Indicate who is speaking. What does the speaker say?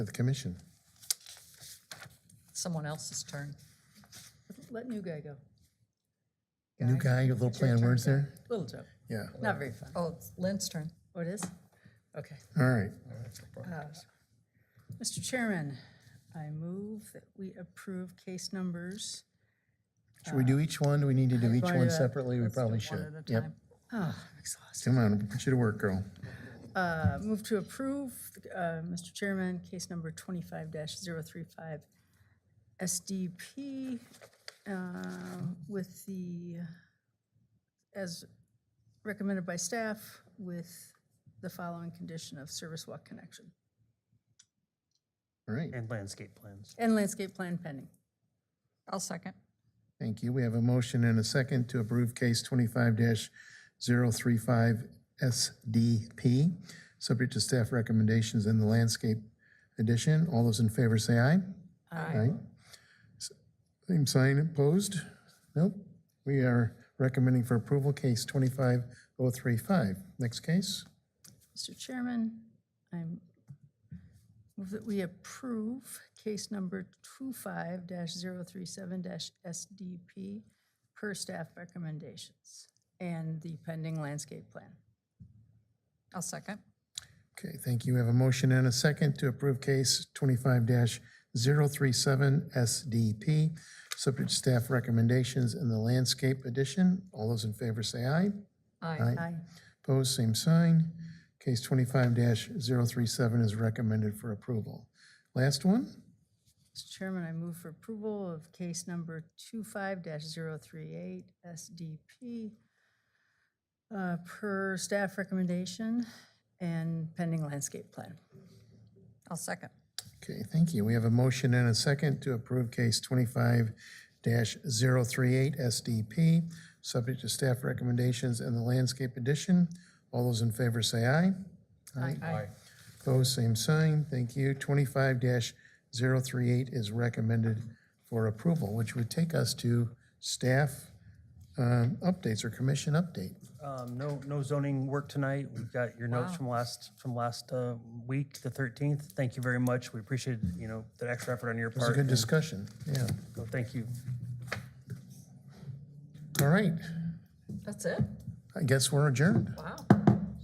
Speaker 1: to the commission.
Speaker 2: Someone else's turn.
Speaker 3: Let new guy go.
Speaker 1: New guy, a little play on words there?
Speaker 3: Little joke.
Speaker 1: Yeah,
Speaker 3: Not very fun.
Speaker 2: Oh, it's Lynn's turn.
Speaker 3: Oh, it is? Okay.
Speaker 1: all right.
Speaker 3: Mr. Chairman, I move that we approve case numbers.
Speaker 1: Should we do each one? Do we need to do each
Speaker 3: Why,
Speaker 1: one
Speaker 3: uh,
Speaker 1: separately? We
Speaker 2: Let's do
Speaker 1: probably
Speaker 2: one
Speaker 1: should.
Speaker 2: at a
Speaker 1: Yep.
Speaker 2: time.
Speaker 3: Oh, I'm exhausted.
Speaker 1: Come on, put you to work, girl.
Speaker 3: Uh, Move to approve, uh, Mr. Chairman, case number 25-035 SDP uh, with the, as recommended by staff, with the following condition of service walk connection
Speaker 1: All right,
Speaker 4: And landscape plans.
Speaker 3: and landscape plan pending.
Speaker 2: I'll second.
Speaker 1: thank you. We have a motion and a second to approve case twenty-five 35 SDP, subject to staff recommendations in the landscape edition. All those in favor say aye.
Speaker 2: Aye.
Speaker 1: S- Same sign opposed? Nope. We are recommending for approval case twenty-five oh three five. Next case?
Speaker 3: Mr. Chairman, I move that we approve case number 25-037-SDP per staff recommendations and the pending landscape plan.
Speaker 2: I'll second.
Speaker 1: Okay, thank you. We have a motion and a second to approve case twenty-five oh 37 SDP, subject to staff recommendations in the landscape edition. All those in favor say aye.
Speaker 2: Aye.
Speaker 3: Aye.
Speaker 1: Opposed, same sign. Case twenty-five 37 is recommended for approval. Last one?
Speaker 3: Mr. Chairman, I move for approval of case number 25-038 SDP uh, per staff recommendation and pending landscape plan.
Speaker 2: I'll second.
Speaker 1: Okay, thank you. We have a motion and a second to approve case twenty-five 38 SDP, subject to staff recommendations in the landscape edition. All those in favor say aye.
Speaker 3: Aye.
Speaker 1: Opposed, same sign. Thank you. Twenty-five 38 is recommended for approval, which would take us to staff um, updates or commission update.
Speaker 4: Um, no, no zoning work tonight. We've got your notes from last, from last, uh, week, the thirteenth. Thank you very much. We appreciate, you know, the extra effort on your
Speaker 1: It's a
Speaker 4: part.
Speaker 1: good discussion, yeah.
Speaker 4: So Thank you.
Speaker 1: All right,
Speaker 2: That's it?
Speaker 1: I guess we're adjourned.
Speaker 2: Wow.